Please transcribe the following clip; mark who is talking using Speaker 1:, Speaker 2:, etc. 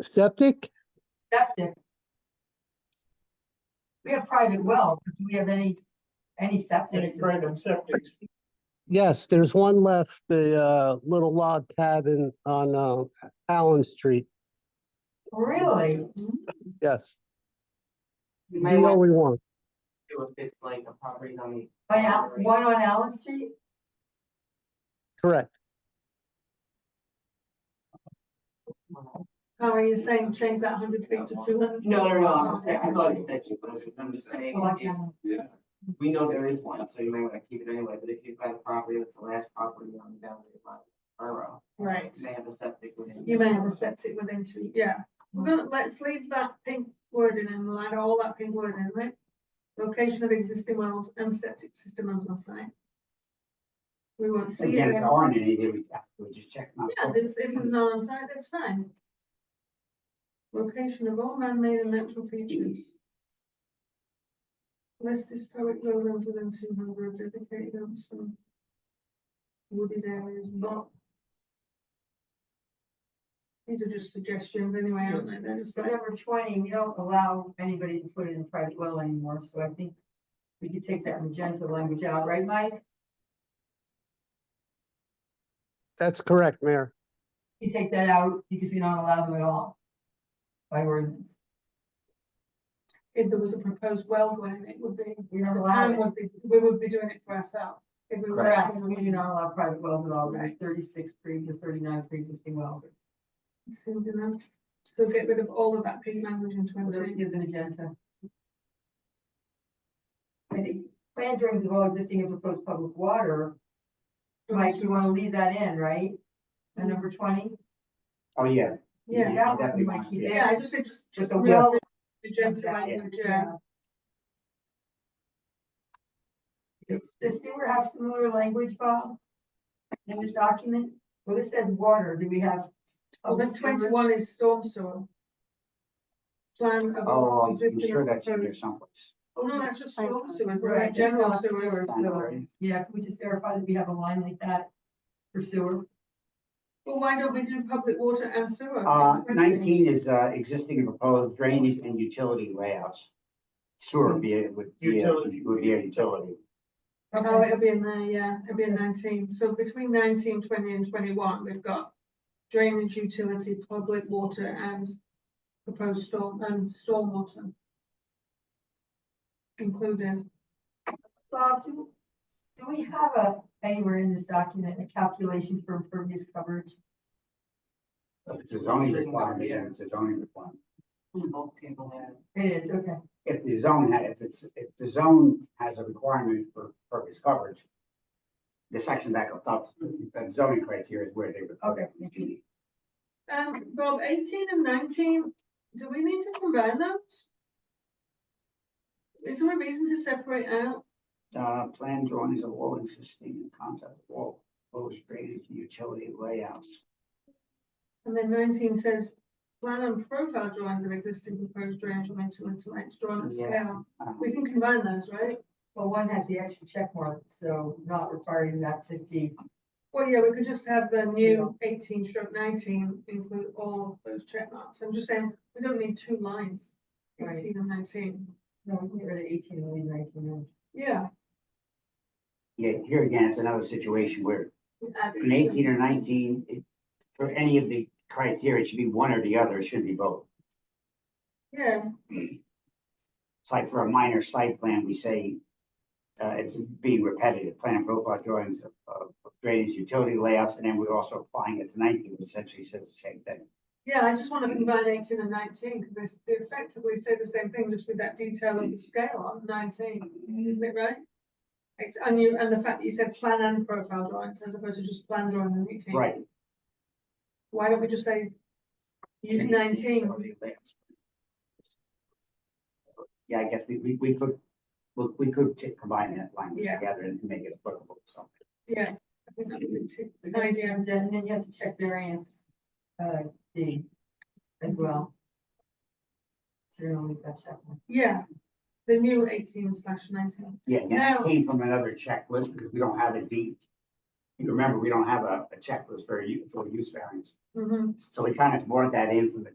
Speaker 1: septic?
Speaker 2: septic. We have private wells, but do we have any, any septic?
Speaker 3: Any private septics?
Speaker 1: Yes, there's one left, the uh, little log cabin on uh, Allen Street.
Speaker 2: Really?
Speaker 3: Mm-hmm.
Speaker 1: Yes,
Speaker 4: You
Speaker 1: the
Speaker 4: might want
Speaker 1: only one.
Speaker 4: to do if it's like a property on the.
Speaker 2: By Al- one on Allen Street?
Speaker 1: Correct.
Speaker 5: How are you saying change that hundred feet to two hundred?
Speaker 4: No, no, no, I'm just saying, I thought it said you, but I'm just saying,
Speaker 2: Well,
Speaker 5: Oh,
Speaker 2: I
Speaker 4: if-
Speaker 2: can't-
Speaker 4: we know there is one, so you might wanna keep it anyway, but if you've got a property, that's the last property on the boundary of the borough.
Speaker 5: Right.
Speaker 4: They have a septic. within-
Speaker 5: You may have a septic within two, yeah. We're gonna, let's leave that pink wording and we'll add all that pink wording, right? Location of existing wells and septic system as well, site. We won't see it
Speaker 6: Again, if
Speaker 5: again.
Speaker 6: there aren't any, then we, we just check them
Speaker 5: Yeah,
Speaker 6: out.
Speaker 5: this, if it's not on site, that's fine. Location of all man-made and natural features. List historic buildings within two hundred dedicated homes from wooded areas, not. These are just suggestions anyway, aren't they? They're just
Speaker 2: So
Speaker 5: like,
Speaker 2: number twenty, we don't allow anybody to put it in private well anymore, so I think we could take that magenta language out, right, Mike?
Speaker 1: That's correct, Mayor.
Speaker 2: You take that out because we don't allow them at all. By ordinance,
Speaker 5: if there was a proposed well going, it would be,
Speaker 2: we don't
Speaker 5: the
Speaker 2: allow
Speaker 5: town
Speaker 2: it.
Speaker 5: would be, we would be doing it for ourselves. If we were.
Speaker 2: Correct,
Speaker 5: acting on
Speaker 2: we do
Speaker 5: it.
Speaker 2: not allow private wells at all, there's thirty-six previous, thirty-nine pre-existing wells.
Speaker 5: Seems enough. So get rid of all of that pink language in twenty.
Speaker 2: Give the agenda. I think plan drawings of all existing and proposed public water, Mike, you wanna leave that in, right? And number twenty?
Speaker 6: Oh, yeah.
Speaker 5: Mm-hmm. Yeah.
Speaker 2: That one you wanna keep
Speaker 5: Yeah, I
Speaker 2: in,
Speaker 5: just said just,
Speaker 2: just
Speaker 5: just
Speaker 2: a
Speaker 5: a
Speaker 2: well.
Speaker 5: gentle language, yeah.
Speaker 2: Does does sewer have similar language, Bob? In this document? Well, this says water, do we have?
Speaker 5: Well, then
Speaker 2: sewer?
Speaker 5: twenty-one is storm sewer. Plan of
Speaker 6: Oh,
Speaker 5: all
Speaker 6: I'm
Speaker 5: existing.
Speaker 6: sure that's in there
Speaker 5: proposed-
Speaker 6: someplace.
Speaker 5: Oh, no, that's just storm sewer,
Speaker 2: Right,
Speaker 5: right, general
Speaker 2: that's not
Speaker 5: sewer.
Speaker 2: sewer, so, Yeah, can we just verify that we have a line like that for sewer?
Speaker 5: Well, why don't we do public water and sewer? in
Speaker 6: Uh,
Speaker 5: 20?
Speaker 6: nineteen is, uh, existing and proposed drainage and utility layouts. Sewer would be, a- would be, a-
Speaker 3: Utility.
Speaker 6: would be a utility.
Speaker 5: Oh, it'll be in there, yeah, it'll be in nineteen, so between 19, 20, and twenty-one, we've got drainage utility, public water and proposed storm, and stormwater. Included.
Speaker 2: Bob, do, do we have a, anywhere in this document, a calculation for impervious coverage?
Speaker 6: It's a zoning requirement, yeah, it's a zoning requirement.
Speaker 4: Bulk table there.
Speaker 2: It is, okay.
Speaker 6: If the zone had, if it's, if the zone has a requirement for purpose coverage, the section back up top, the zoning criteria is where they would. put it.
Speaker 2: Okay.
Speaker 5: Um, Rob, eighteen and nineteen, do we need to combine those? Is there a reason to separate out?
Speaker 6: Uh, plan drawings of all existing and concept of all proposed drainage and utility layouts.
Speaker 5: And then nineteen says, plan and profile drawings of existing proposed drainage and utility lines drawn at
Speaker 6: Yeah.
Speaker 5: scale.
Speaker 6: Uh,
Speaker 5: We can combine those, right?
Speaker 2: Well, one has the extra check mark, so not required in that fifty.
Speaker 5: Well, yeah, we could just have the new eighteen stroke nineteen include all of those check marks. I'm just saying, we don't need two lines,
Speaker 2: Right.
Speaker 5: eighteen and nineteen.
Speaker 2: No, we can get rid of eighteen and leave nineteen in.
Speaker 5: Yeah.
Speaker 6: Yeah, here again, it's another situation where
Speaker 5: we add it.
Speaker 6: an eighteen or nineteen, it- for any of the criteria, it should be one or the other, it shouldn't be both.
Speaker 5: Yeah,
Speaker 6: It's like for a minor site plan, we say, uh, it's being repetitive, plan and profile drawings of, of drainage utility layouts, and then we're also applying it to nineteen, which essentially says the same thing.
Speaker 5: yeah, I just want to combine eighteen and nineteen because they effectively say the same thing, just with that detail of the scale on nineteen,
Speaker 6: Mm-hmm.
Speaker 5: isn't it right? It's, and you, and the fact that you said plan and profile drawings as opposed to just plan drawing and eighteen.
Speaker 6: Right.
Speaker 5: Why don't we just say use nineteen?
Speaker 6: Yeah, I guess we, we, we could, we, we could t- combine that language
Speaker 5: Yeah.
Speaker 6: together and make it applicable to something.
Speaker 5: Yeah. I think that would be too-
Speaker 2: But then it
Speaker 5: tidy and
Speaker 2: turns out- And then you have to check variance, uh, D as well. So you're gonna lose that check mark.
Speaker 5: Yeah, the new eighteen slash nineteen.
Speaker 6: Yeah, and that
Speaker 5: Now-
Speaker 6: came from another checklist because we don't have a D. You remember, we don't have a, a checklist for you, for use variance.
Speaker 5: Mm-hmm.
Speaker 6: So we kind of brought that in from the